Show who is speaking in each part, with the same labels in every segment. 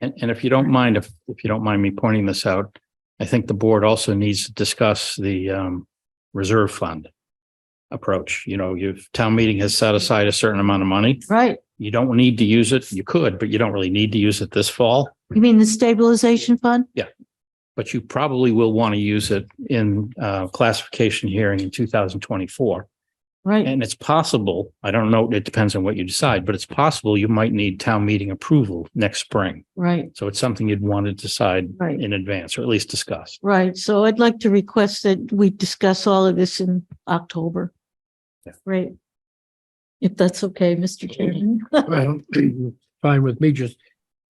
Speaker 1: And, and if you don't mind, if, if you don't mind me pointing this out, I think the board also needs to discuss the, um, reserve fund approach. You know, you've, town meeting has set aside a certain amount of money.
Speaker 2: Right.
Speaker 1: You don't need to use it. You could, but you don't really need to use it this fall,
Speaker 2: You mean the stabilization fund?
Speaker 1: but you probably will want to use it in, uh, classification hearing in two thousand twenty-four.
Speaker 2: Right.
Speaker 1: And it's possible, I don't know, it depends on what you decide, but it's possible you might need town meeting approval next spring.
Speaker 2: Right.
Speaker 1: So it's something you'd want to decide
Speaker 2: Right.
Speaker 1: in advance or at least discuss.
Speaker 2: Right. So I'd like to request that we discuss all of this in October.
Speaker 1: Yeah.
Speaker 2: Right. If that's okay, Mr. Chairman.
Speaker 3: Well, fine with me, just,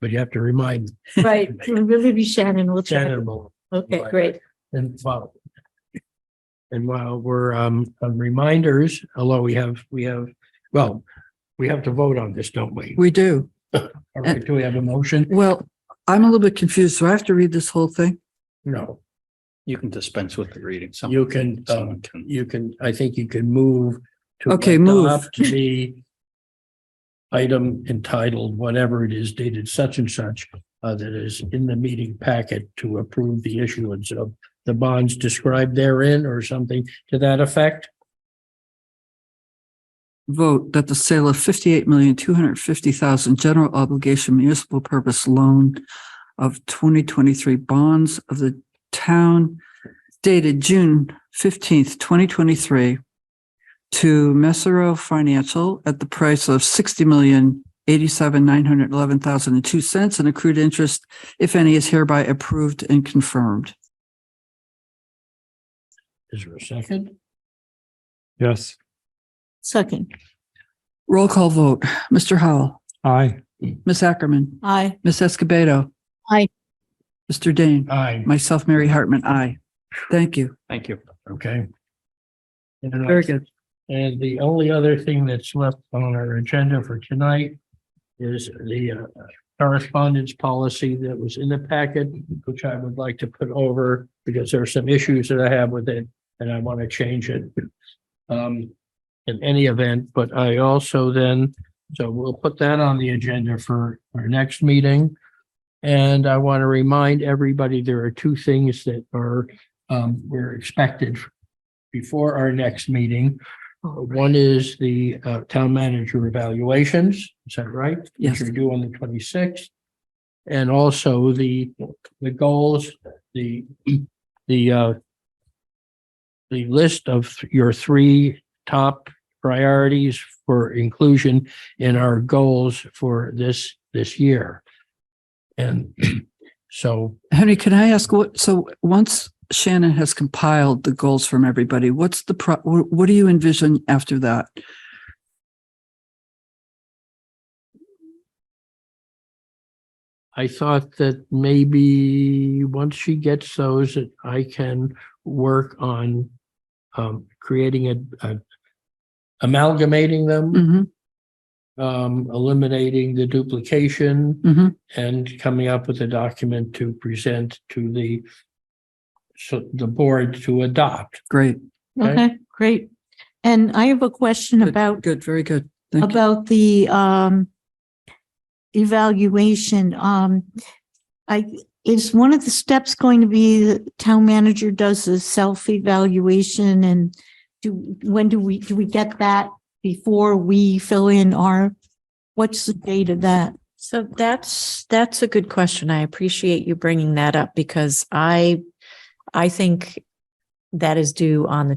Speaker 3: but you have to remind
Speaker 2: Right. It'll really be Shannon. We'll check.
Speaker 3: Shannon about-
Speaker 2: Okay, great.
Speaker 3: and while And while we're um on reminders, although we have, we have, well, we have to vote on this, don't we?
Speaker 4: We do.
Speaker 3: All right, do we have a motion?
Speaker 4: Well, I'm a little bit confused. Do I have to read this whole thing?
Speaker 3: No,
Speaker 1: You can dispense with the reading. Some-
Speaker 3: you can, um,
Speaker 1: Someone can.
Speaker 3: you can, I think you can move to
Speaker 4: Okay, move.
Speaker 3: adopt The item entitled, whatever it is dated such and such, uh, that is in the meeting packet to approve the issuance of the bonds described therein or something to that effect.
Speaker 4: Vote that the sale of fifty-eight million, two hundred fifty thousand general obligation municipal purpose loan of twenty twenty-three bonds of the town dated June fifteenth, twenty twenty-three to Messero Financial at the price of sixty million, eighty-seven, nine hundred eleven thousand and two cents and accrued interest, if any, is hereby approved and confirmed.
Speaker 3: Is there a second?
Speaker 5: Yes,
Speaker 2: Second.
Speaker 4: Roll call vote. Mr. Howell,
Speaker 5: aye,
Speaker 4: Ms. Ackerman.
Speaker 2: Aye.
Speaker 4: Ms. Escobedo.
Speaker 2: Aye.
Speaker 4: Mr. Dane.
Speaker 3: Aye,
Speaker 4: Myself, Mary Hartman, aye. Thank you.
Speaker 1: Thank you.
Speaker 3: okay. And then I-
Speaker 4: Very good.
Speaker 3: And the only other thing that's left on our agenda for tonight is the uh, correspondence policy that was in the packet, which I would like to put over because there are some issues that I have with it and I want to change it. Um, in any event, but I also then, so we'll put that on the agenda for our next meeting. And I want to remind everybody, there are two things that are, um, were expected before our next meeting. One is the uh, town manager evaluations, is that right?
Speaker 4: Yes.
Speaker 3: Which are due on the twenty-sixth. And also the, the goals, the, the, uh, the list of your three top priorities for inclusion in our goals for this, this year. And so
Speaker 4: Henry, can I ask what, so once Shannon has compiled the goals from everybody, what's the pro, wh- what do you envision after that?
Speaker 3: I thought that maybe once she gets those, that I can work on um, creating a, a- amalgamating them,
Speaker 2: Mm-hmm,
Speaker 4: hmm
Speaker 3: um, eliminating the duplication
Speaker 2: mm-hmm.
Speaker 4: hmm
Speaker 3: and coming up with a document to present to the so the board to adopt.
Speaker 4: Great.
Speaker 3: Okay.
Speaker 2: Okay, great. And I have a question
Speaker 4: Good,
Speaker 2: about
Speaker 4: Good, very good. Thank you.
Speaker 2: about the um evaluation, um, I, is one of the steps going to be the town manager does a self-evaluation and do, when do we, do we get that before we fill in our, what's the date of that?
Speaker 6: So that's, that's a good question. I appreciate you bringing that up because I, I think that is due on the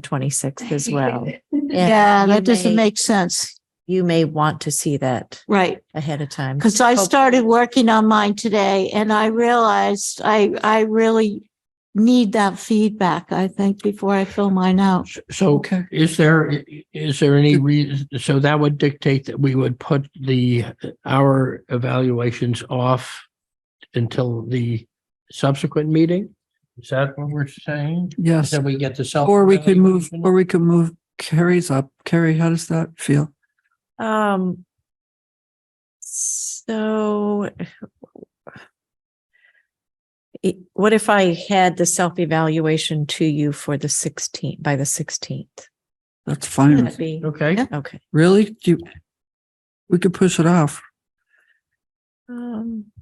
Speaker 6: 26th as well.
Speaker 2: Yeah,
Speaker 6: you
Speaker 2: that doesn't
Speaker 6: may-
Speaker 2: make sense.
Speaker 6: You may want to see that
Speaker 2: Right.
Speaker 6: ahead of time.
Speaker 2: Because I started working on mine today and I realized I, I really need that feedback, I think, before I fill mine out.
Speaker 3: So
Speaker 4: Okay.
Speaker 3: Is there, i- i- is there any reason, so that would dictate that we would put the, our evaluations off until the subsequent meeting? Is that what we're saying?
Speaker 4: Yes.
Speaker 3: Then we get the self.
Speaker 4: Or we could move, or we could move Carrie's up. Carrie, how does that feel?
Speaker 6: Um, so it- what if I had the self-evaluation to you for the 16th, by the 16th?
Speaker 4: That's
Speaker 6: Would
Speaker 4: fine.
Speaker 6: that
Speaker 2: Hmm.
Speaker 6: be-
Speaker 3: Okay,
Speaker 2: Yeah.
Speaker 6: Okay.
Speaker 4: Really? Do you, we could push it off.
Speaker 6: Um,